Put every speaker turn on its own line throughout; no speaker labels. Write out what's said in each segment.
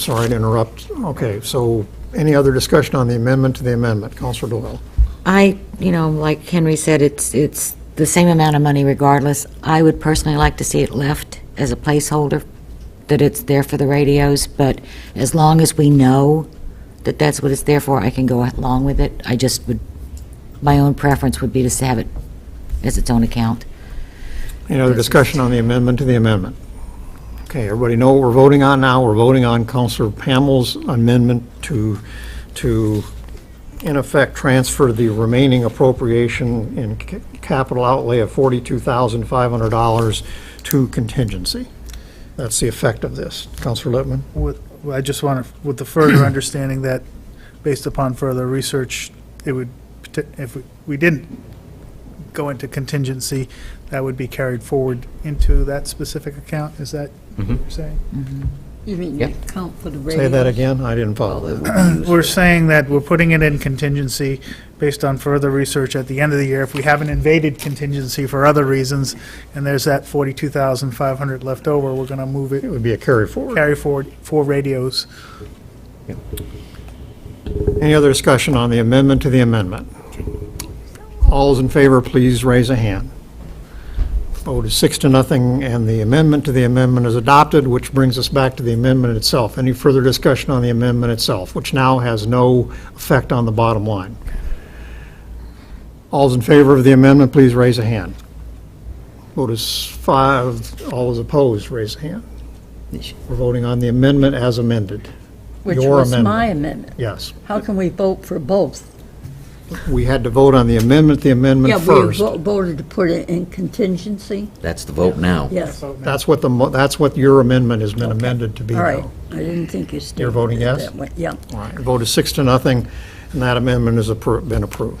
Sorry to interrupt. Okay, so any other discussion on the amendment to the amendment? Counselor Doyle?
I, you know, like Henry said, it's, it's the same amount of money regardless. I would personally like to see it left as a placeholder, that it's there for the radios, but as long as we know that that's what it's there for, I can go along with it. I just would, my own preference would be to have it as its own account.
Any other discussion on the amendment to the amendment? Okay, everybody know what we're voting on now? We're voting on Counselor Pamel's amendment to, to, in effect, transfer the remaining appropriation in ca- capital outlay of $42,500 to contingency. That's the effect of this. Counselor Lippman?
With, I just want to, with the further understanding that, based upon further research, it would, pota- if we- we didn't go into contingency, that would be carried forward into that specific account, is that what you're saying?
You mean the account for the radio?
Say that again? I didn't follow that.
We're saying that we're putting it in contingency based on further research at the end of the year. If we haven't invaded contingency for other reasons, and there's that 42,500 left over, we're going to move
It
it,
would be a carry forward.
carry forward for radios.
Any other discussion on the amendment to the amendment? All those in favor, please raise a hand. Vote is six to nothing, and the amendment to the amendment is adopted, which brings us back to the amendment itself. Any further discussion on the amendment itself, which now has no effect on the bottom line? All those in favor of the amendment, please raise a hand. Vote is five, all those opposed, raise a hand. We're voting on the amendment as amended.
Which
Your
was
amendment.
my amendment.
Yes.
How can we vote for both?
We had to vote on the amendment, the amendment
Yeah, we
first.
vo- voted to put it in contingency,
That's the vote now.
yes. All
That's what the, mo- that's what your amendment has been amended to be
right,
now.
I didn't think you stated
You're voting
it
yes?
that way. Yeah,
All right, vote is six to nothing, and that amendment has appro- been approved.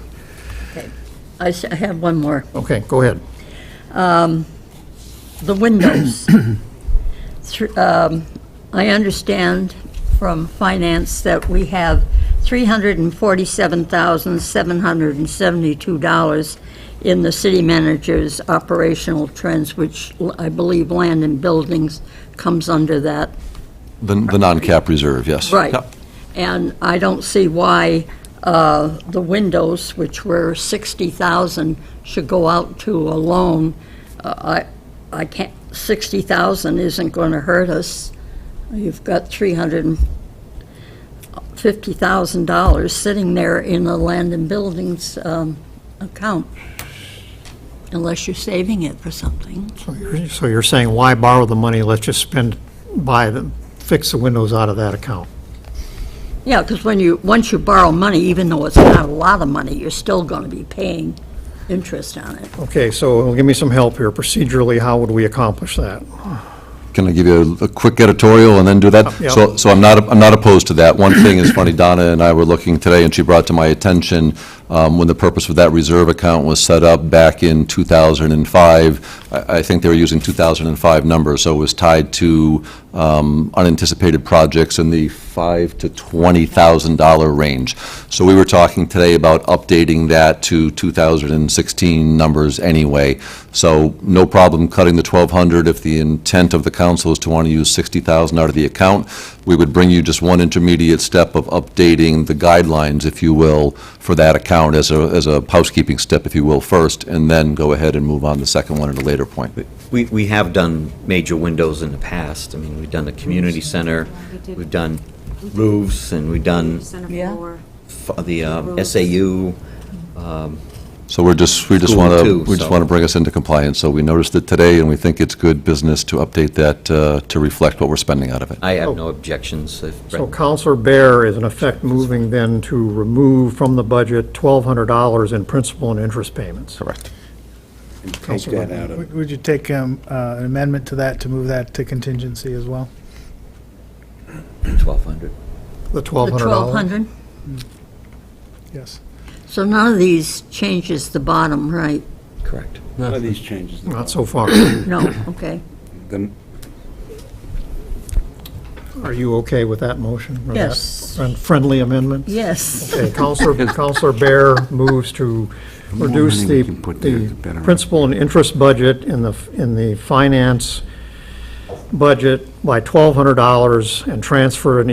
I s- I have one more.
Okay, go ahead.
The windows. Thr- um, I understand from finance that we have $347,772 in the city manager's operational trends, which l- I believe land and buildings comes under that.
The, the non-cap reserve, yes.
Right.
Yep.
And I don't see why uh, the windows, which were 60,000, should go out to a loan. Uh, I, I can't, 60,000 isn't going to hurt us. You've got $350,000 sitting there in the land and buildings um, account, unless you're saving it for something.
So you're- So you're saying, why borrow the money? Let's just spend, buy them, fix the windows out of that account.
Yeah, because when you, once you borrow money, even though it's not a lot of money, you're still going to be paying interest on it.
Okay, so give me some help here. Procedurally, how would we accomplish that?
Can I give you a a quick editorial and then do that?
Yeah.
So, so I'm not, I'm not opposed to that. One thing is funny, Donna and I were looking today, and she brought to my attention, um, when the purpose of that reserve account was set up back in 2005, I, I think they were using 2005 numbers, so it was tied to um, unanticipated projects in the five to $20,000 range. So we were talking today about updating that to 2016 numbers anyway. So no problem cutting the 1,200 if the intent of the council is to want to use 60,000 out of the account. We would bring you just one intermediate step of updating the guidelines, if you will, for that account as a, as a housekeeping step, if you will, first, and then go ahead and move on to the second one at a later point.
We, we have done major windows in the past. I mean, we've done the community center, we've done roofs, and we've done
Yeah.
f- the um, SAU.
So we're just, we just
School
want to,
too,
we just
so-
want to bring us into compliance. So we noticed it today, and we think it's good business to update that, uh, to reflect what we're spending out of it.
I have no objections. if
So
Brett-
Counselor Bear is in effect moving then to remove from the budget $1,200 in principal and interest payments.
Correct.
Take that out of,
Would would you take um, uh, an amendment to that, to move that to contingency as well?
1,200.
The
The
$1,200?
1,200?
Yes.
So none of these changes the bottom, right?
Correct.
none of these changes.
Not so far.
No, okay.
The-
Are you okay with that motion? or that
Yes.
friend- Friendly amendment?
Yes.
Okay, Counselor, Counselor Bear moves to
more
reduce
money
the,
we can put there, the
the
better.
principal and interest budget in the, in the finance budget by $1,200 and transfer an